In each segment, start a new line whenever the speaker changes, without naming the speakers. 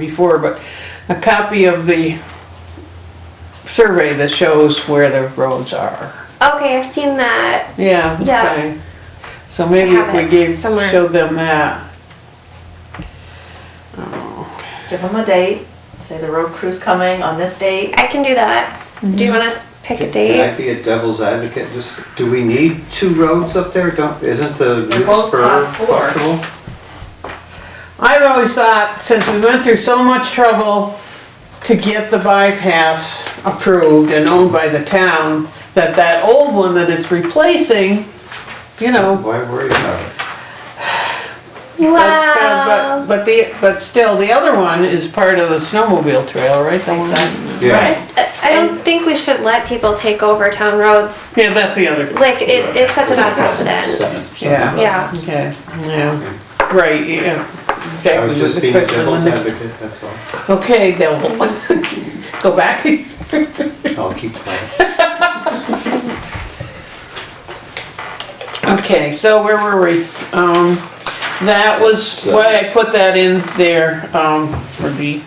before, but a copy of the survey that shows where the roads are.
Okay, I've seen that.
Yeah.
Yeah.
okay. So maybe
I have
if we
it
gave,
somewhere.
showed them that.
Give them a date, say the road crew's coming on this date.
I can do that. Do you want to pick a
Can I
date?
be a devil's advocate? Just, do we need two roads up there? Don't, isn't the
They're
new
both
spur
class four.
functional?
I've always thought, since we went through so much trouble to get the bypass approved and owned by the town, that that old one that it's replacing, you know,
Why worry about it?
That's bad,
Wow.
But, but the, but still, the other one is part of the snowmobile trail, right? The one-
Exactly.
Yeah.
Right?
I I don't think we should let people take over town roads.
Yeah, that's the other,
Like, it, it sets a bad precedent.
yeah,
Yeah.
okay, yeah, right, yeah,
I
exactly.
was just being a
especially when
devil's
they-
advocate, that's all.
Okay, devil, go back.
I'll keep quiet.
Okay, so where were we? Um, that was why I put that in there, um, for the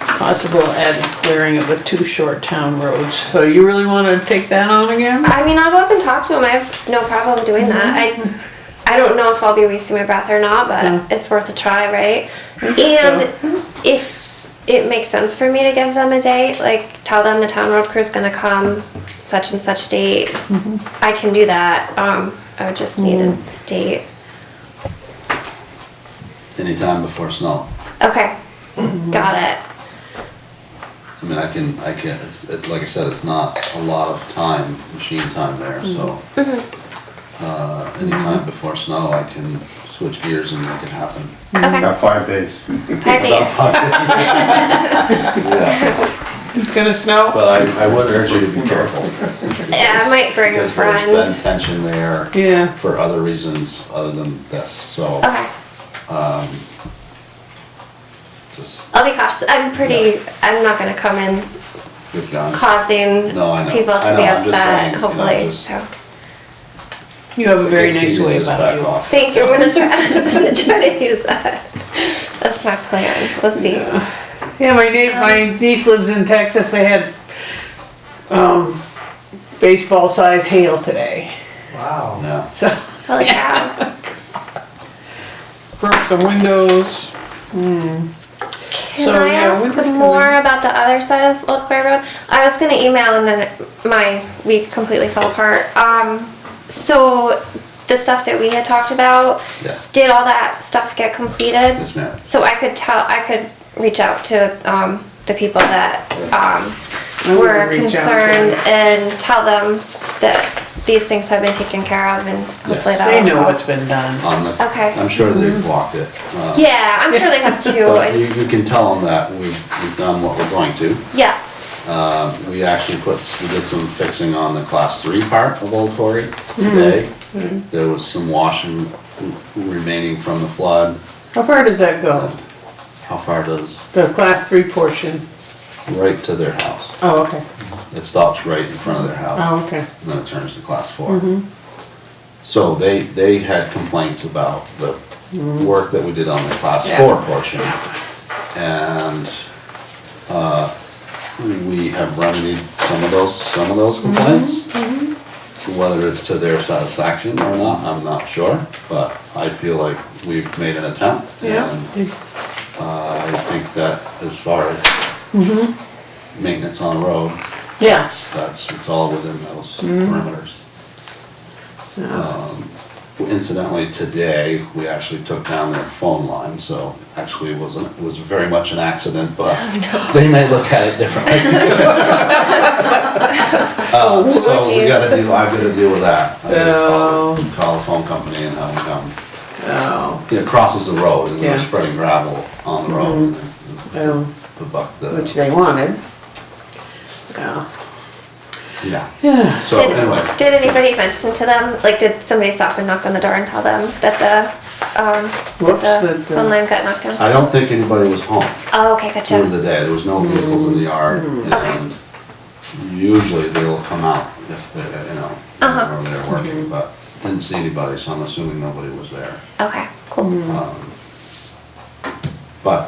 possible added clearing of the two short town roads. So you really wanna take that on again?
I mean, I'll go up and talk to him. I have no problem doing that. I, I don't know if I'll be wasting my breath or not, but
Mm.
it's worth a try, right?
Mm-hmm.
And if it makes sense for me to give them a date, like tell them the town road crew is going to come such and such date,
Mm-hmm.
I can do that. Um, I would just need a date.
Anytime before snow.
Okay,
Mm-hmm.
got it.
I mean, I can, I can, it's, it, like I said, it's not a lot of time, machine time there, so.
Mm-hmm.
Uh, anytime before snow, I can switch gears and make it happen.
Okay,
Got five days.
five days.
Yeah,
It's gonna snow?
but I, I would urge you to be careful.
Yeah, I might bring a
Because there's
friend.
been tension there
Yeah.
for other reasons other than this, so
Okay,
just
I'll be cautious. I'm pretty. I'm not going to come in
with guns.
causing
No, I know.
people
I
to
know,
be
I'm just
upset,
saying, you know,
hopefully.
just-
So,
You have a very
It's
nice
easier
way
to just
about
back
you.
off.
thank you. I'm gonna try, I'm gonna try to use that. That's my plan. We'll see.
Yeah, my niece, my niece lives in Texas. They had um, baseball size hail today.
Wow.
Yeah.
So
Holy cow.
broke some windows.
Can
So,
I
yeah,
ask
winter's coming.
more about the other side of Old Quarry Road? I was gonna email and then my week completely fell apart. Um, so the stuff that we had talked about,
Yes.
did all that stuff get completed?
Yes, ma'am.
So I could tell, I could reach out to, um, the people that, um,
I would
were
reach out to
concerned
them.
and tell them that these things have been taken care of and hopefully
Yes.
that'll.
They know
solve-
what's been done.
On the,
Okay.
Um, I'm sure
Mm-hmm.
they've walked it. uh,
Yeah, I'm sure they have too. I
But
just,
you, you can tell them that we've, we've done what we're going to.
yeah,
Uh, we actually put, we did some fixing on the class three part of Old Quarry today. There was some washing remaining from the flood.
How far does that go?
How far does,
The class three portion.
right to their house.
Oh, okay.
It stops right in front of their house.
Oh, okay.
And then it turns to class four.
Mm-hmm.
So they, they had complaints about the work that we did on the class
Mm-hmm. Yeah.
four portion. And, uh, we have remedied some of those, some of those
Mm-hmm.
complaints. Whether it's to their satisfaction or not, I'm not sure, but I feel like we've made an attempt.
Yeah.
And I think that as far as
Mm-hmm.
maintenance on the road,
Yeah.
that's, that's, it's all within those
Mm-hmm.
parameters. Um, Incidentally, today, we actually took down their phone line, so actually it wasn't, it was very much an accident, but they may look at it differently.
Oh,
Uh, So we gotta deal, I've gotta deal with that. I gotta call- Call the phone company and have them come.
Oh,
It crosses the road and we
Yeah.
we're spreading gravel on the road. and the-
oh,
The buck,
which
the,
they wanted. Oh.
yeah.
Yeah.
So anyway,
did, did anybody mention to them, like, did somebody stop and knock on the door and tell them that the, um,
Whoops,
the
that,
phone
uh,
line got knocked down?
I don't think anybody was home.
Oh, okay,
through the
gotcha. Hmm.
day, there was no vehicles in the yard, and usually they'll come out if they, you know,
Uh-huh.
whenever they're working, but didn't see anybody, so I'm assuming
Hmm.
nobody was there.
Okay, cool.
Um, But